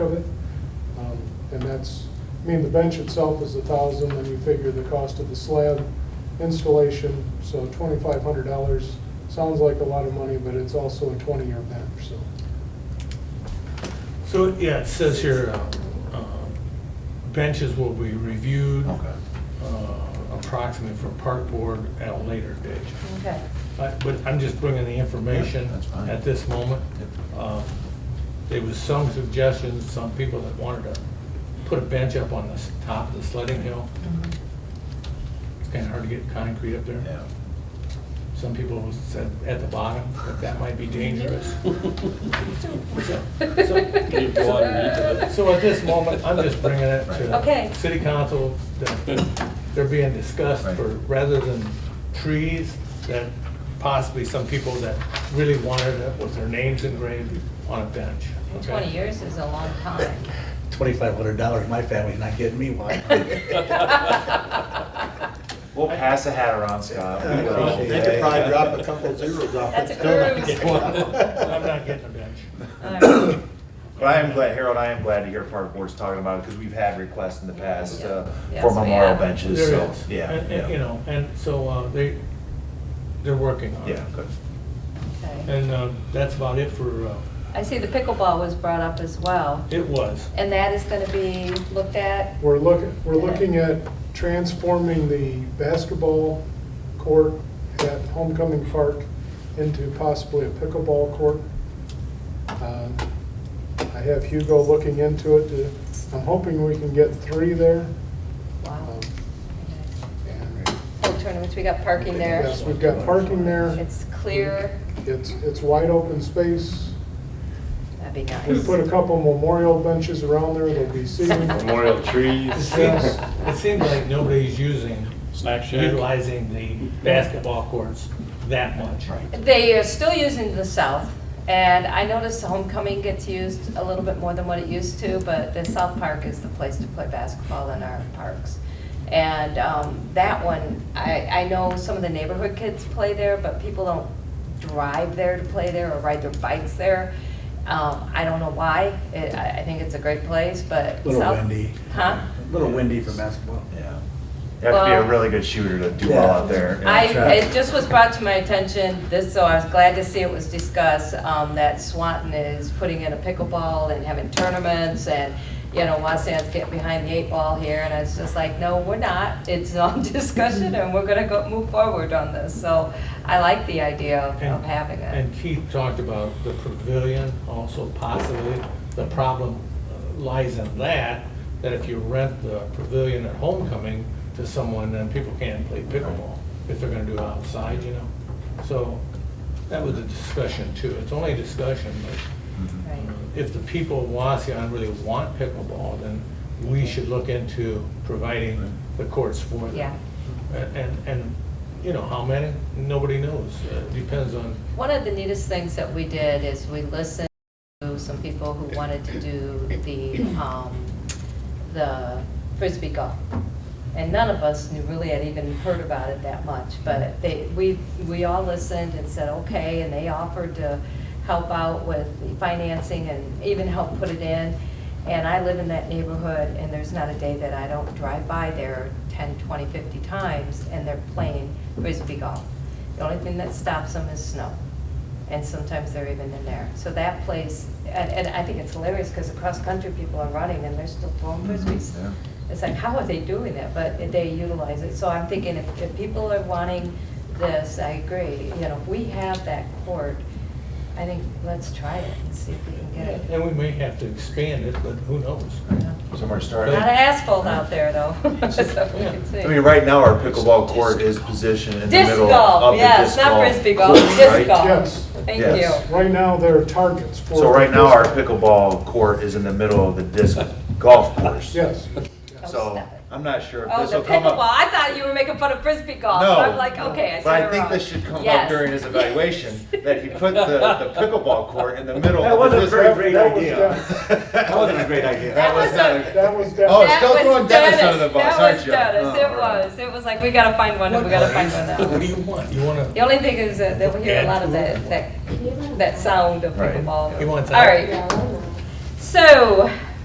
Um, that's, I mean, the bench itself is a thousand, and you figure the cost of the slab installation, so twenty-five hundred dollars. Sounds like a lot of money, but it's also a twenty-year bench, so. So, yeah, it says here, uh, uh, benches will be reviewed Okay. uh, approximately for park board at a later date. Okay. I- But I'm just bringing the information Yeah, that's fine. at this moment. Yep. Uh, There was some suggestions, some people that wanted to put a bench up on the s- top of the sledding hill. Mhm. It's kind of hard to get concrete up there. Yeah. Some people said at the bottom, that that might be dangerous. Leave the water into it. So at this moment, I'm just bringing it to. Okay. City council, that they're being discussed Right. for, rather than trees, that possibly some people that really wanted it with their names engraved on a bench. okay? Twenty years is a long time. Twenty-five hundred dollars, my family's not getting me one. We'll pass a hat around, Scott. I appreciate They could probably drop a couple zeros off. That's it, a still not cruise. get one. I'm not getting a bench. All right. But I am glad, Harold, I am glad to hear Park Board's talking about it, because we've had requests in the past uh, Yeah. for Yes, we memorial have. benches, There so, is. yeah. And- yeah. and, You know, and so uh, they, they're working on it. Yeah, good. Okay. And uh, that's about it for, uh, I see the pickleball was brought up as well, it was. and that is gonna be looked at? We're looking, we're looking at transforming the basketball court at Homecoming Park into possibly a pickleball court. Uh, I have Hugo looking into it. to- I'm hoping we can get three there. Wow. Um, and Full tournaments, we got parking there. Yes, we've got parking there. It's clear, It's, it's wide open space. that'd be We put a nice. couple memorial benches around there, there'll be seating. Memorial It trees. seems, it seems like nobody's using, Snack shack. utilizing the basketball courts that much. They are still using the south, and I noticed homecoming gets used a little bit more than what it used to, but the south park is the place to play basketball in our parks. And um, that one, I, I know some of the neighborhood kids play there, but people don't drive there to play there or ride their bikes there. Um, I don't know why, It- I, I think it's a great place, but. Little south- windy. Huh? Little windy for basketball. Yeah. You have to be Well- a really good shooter to do well Yeah. out there. I, Yeah, traffic. it just was brought to my attention, this, so I was glad to see it was discussed, um, that Swanton is putting in a pickleball and having tournaments and, you know, Wasan's getting behind the eight ball here, and it's just like, no, we're not. It's on discussion and we're gonna go, move forward on this, so I like the idea of of And- having it. And Keith talked about the pavilion also possibly. The problem uh, lies in that, that if you rent the pavilion at homecoming to someone, then people can't play pickleball if they're gonna do it outside, you know? So that was a discussion too. It's only a discussion, but Right. if the people of Waseon really want pickleball, then we should look into providing the courts for them. Yeah. A- And, and, you know, how many? Nobody knows. Uh, It Depends on One of the neatest things that we did is we listened to some people who wanted to do the, um, the frisbee golf. And none of us knew, really had even heard about it that much, but they, we, we all listened and said, okay, and they offered to help out with the financing and even help put it in. And I live in that neighborhood, and there's not a day that I don't drive by there 10, 20, 50 times, and they're playing frisbee golf. The only thing that stops them is snow, and sometimes they're even in there. So that place, and, and I think it's hilarious, because across-country people are running, and they're still throwing Mm-hmm. frisbees. Yeah. It's like, how are they doing that? But they utilize it. So I'm thinking, if, if people are wanting this, I agree, you know, if we have that court, I think, let's try it and see if we can get it. And we may have to expand it, but who knows? Somewhere Not to start. an asphalt out there, though. So we can see. I mean, right now, our pickleball court is positioned in the Disc middle of golf, the yes, disc golf. not frisbee golf, court, disc right? Yes. golf. Thank you. Yes. Right now, there are targets for. So right now, our pickleball court is in the middle of the disc golf course. Yes. So I'm not sure if Oh, this the will come up. pickleball, I thought you were making fun of frisbee golf. No. I'm like, okay, I said it But I wrong. think this should come up Yes. during his evaluation, that he put the, the pickleball court in the middle That of the wasn't a disc. very great That was idea. done. That wasn't a great idea. That was not. a- That was Oh, done. it's- still throwing Dennis under the bus, aren't you? That was Dennis, Oh, it all right. was, it was like, we gotta find one, and we gotta find one What do out. you want? You want The to, only thing is that that we hear a lot of that, that, that sound of Right. pickleball. he wants All out? right, so,